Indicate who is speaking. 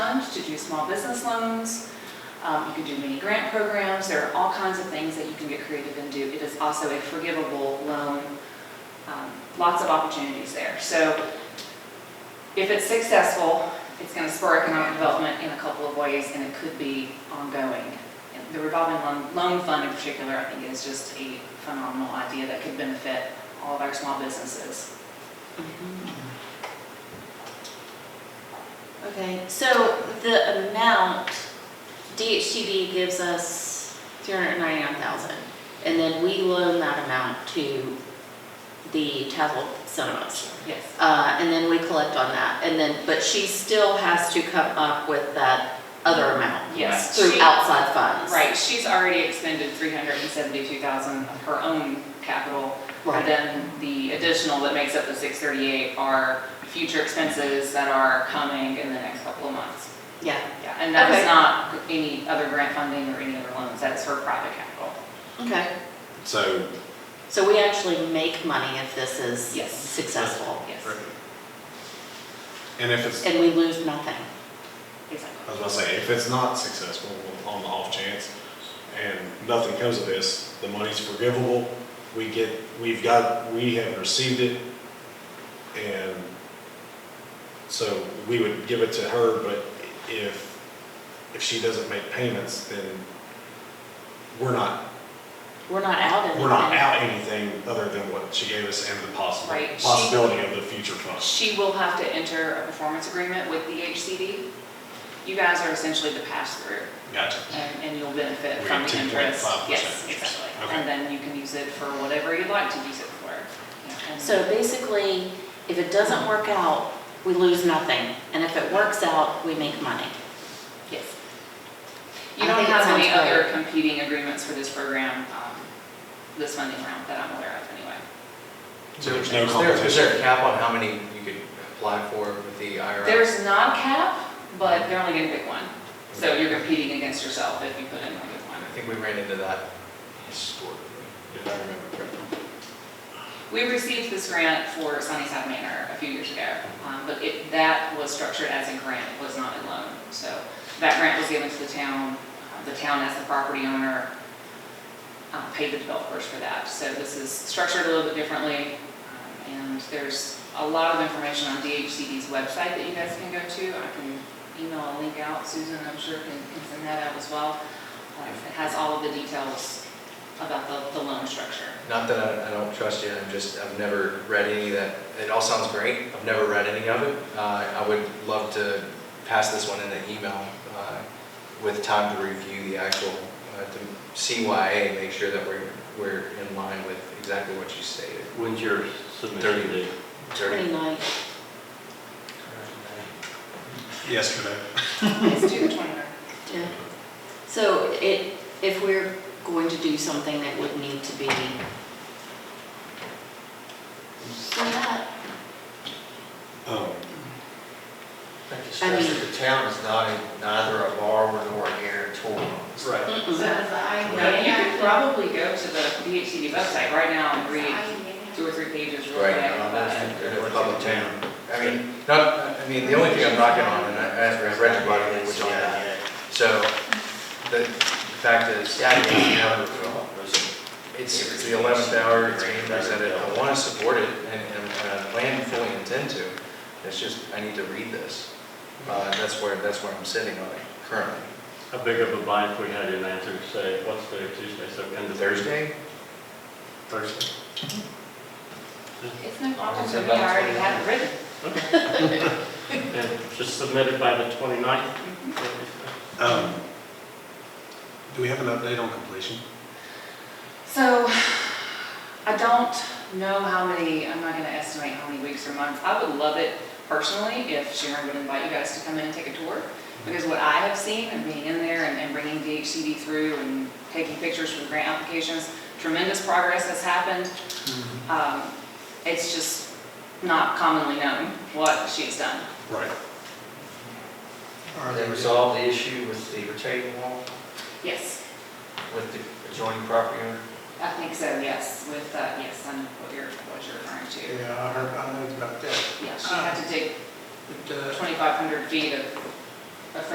Speaker 1: to do small business loans. Um, You can do mini grant programs. There are all kinds of things that you can get creative and do. It is also a forgivable loan. Um, Lots of opportunities there. So if it's successful, it's going to spur economic development in a couple of ways, and it could be ongoing. And The revolving loan, loan fund in particular, I think is just a phenomenal idea that could benefit all of our small businesses.
Speaker 2: Okay, so the amount, DHTD gives us 399,000, and then we loan that amount to the Tassau Cinemas.
Speaker 1: Yes.
Speaker 2: Uh, And then we collect on that, and then, but she still has to come up with that other amount
Speaker 1: Yes.
Speaker 2: through
Speaker 1: She-
Speaker 2: outside funds.
Speaker 1: Right, she's already expended 372,000 of her own capital.
Speaker 2: Right.
Speaker 1: And then the additional that makes up the 638 are future expenses that are coming in the next couple of months.
Speaker 2: Yeah,
Speaker 1: Yeah, and that is
Speaker 2: Okay.
Speaker 1: not any other grant funding or any other loans, that's her private capital.
Speaker 2: okay.
Speaker 3: So,
Speaker 2: So we actually make money if this is
Speaker 1: Yes.
Speaker 2: successful,
Speaker 1: Yes,
Speaker 3: and if it's,
Speaker 2: and we lose nothing.
Speaker 1: exactly.
Speaker 3: I was gonna say, if it's not successful on the off chance and nothing comes of this, the money's forgivable, we get, we've got, we have received it. And so we would give it to her, but if, if she doesn't make payments, then we're not,
Speaker 2: We're not out in
Speaker 3: we're not
Speaker 2: anything.
Speaker 3: out anything other than what she gave us and the possible,
Speaker 1: Right, she-
Speaker 3: possibility of the future funds.
Speaker 1: She will have to enter a performance agreement with the HCD. You guys are essentially the pass-through,
Speaker 3: Gotcha.
Speaker 1: and, and you'll benefit
Speaker 3: We
Speaker 1: from
Speaker 3: get
Speaker 1: the
Speaker 3: 2.5%
Speaker 1: interest. Yes,
Speaker 3: interest.
Speaker 1: exactly.
Speaker 3: Okay.
Speaker 1: And then you can use it for whatever you'd like to use it for. Yeah, and-
Speaker 2: So basically, if it doesn't work out, we lose nothing, and if it works out, we make money.
Speaker 1: Yes. You
Speaker 2: I
Speaker 1: don't
Speaker 2: think it
Speaker 1: have any
Speaker 2: sounds great.
Speaker 1: other competing agreements for this program, um, this funding round that I'm aware of anyway.
Speaker 3: So there's
Speaker 4: Is
Speaker 3: no
Speaker 4: there- Is there a
Speaker 3: competition.
Speaker 4: cap on how many you could apply for with the IRS?
Speaker 1: There's not a cap, but they're only gonna pick one. So you're competing against yourself if you put in like a
Speaker 4: I
Speaker 1: one.
Speaker 4: think we ran into that historically, if I remember correctly.
Speaker 1: We received this grant for Sunnyside Manor a few years ago, um, but it, that was structured as a grant, it was not a loan. So that grant was given to the town, Uh, the town as the property owner uh, paid the developers for that. So this is structured a little bit differently, um, and there's a lot of information on DHCD's website that you guys can go to. I can email a link out, Susan, I'm sure can can send that out as well. Uh, It has all of the details about the, the loan structure.
Speaker 4: Not that I, I don't trust you, I'm just, I've never read any of that, it all sounds great, I've never read any of it. Uh, I would love to pass this one in an email, uh, with time to review the actual, uh, to CYA, make sure that we're, we're in line with exactly what you stated.
Speaker 5: When's your
Speaker 4: Thirty.
Speaker 5: submission date?
Speaker 4: Attorney?
Speaker 2: Pretty nice.
Speaker 3: Yesterday.
Speaker 1: It's due the 29th.
Speaker 2: Yeah. So it, if we're going to do something that would need to be. So that,
Speaker 3: Um,
Speaker 6: I think it's
Speaker 2: I
Speaker 6: just
Speaker 2: mean-
Speaker 6: that the town is not a- neither a borrower nor a guarantor.
Speaker 3: Right.
Speaker 1: So
Speaker 2: mm-mm.
Speaker 1: the IMA, you could probably go to the DHCD website right now and read two or three pages real quick
Speaker 4: Right.
Speaker 1: about it.
Speaker 4: They're a public town. I mean, not, I mean, the only thing I'm knocking on, and I, I've read your body language on that. So, the the fact is,
Speaker 6: Yeah, I mean, you know, it's all- it's-
Speaker 4: It's, it's the eleventh hour, it's being presented, I want to support it, and, and and I plan and fully intend to, it's just, I need to read this. Uh, and that's where, that's where I'm sitting on it currently.
Speaker 5: How big of a bite we had in answer, say, what's the Tuesday, so end of Thursday?
Speaker 4: Thursday?
Speaker 5: Thursday.
Speaker 1: It's no problem, so we already have it written.
Speaker 5: And just submitted by the 29th.
Speaker 3: Um, Do we have an update on completion?
Speaker 1: So I don't know how many, I'm not gonna estimate how many weeks or months. I would love it personally if Sharon would invite you guys to come in and take a tour. Because what I have seen and being in there and and bringing DHCD through and taking pictures from grant applications, tremendous progress has happened. Um, It's just not commonly known what she's done.
Speaker 3: Right.
Speaker 6: Are they resolved the issue with the retaining wall,
Speaker 1: Yes,
Speaker 6: with the adjoining property owner?
Speaker 1: I think so, yes, with, uh, yes, I know what you're, what you're referring to.
Speaker 7: Yeah, I heard, I heard about that.
Speaker 1: Yeah, she had to dig
Speaker 7: But, uh,
Speaker 1: 2,500 feet of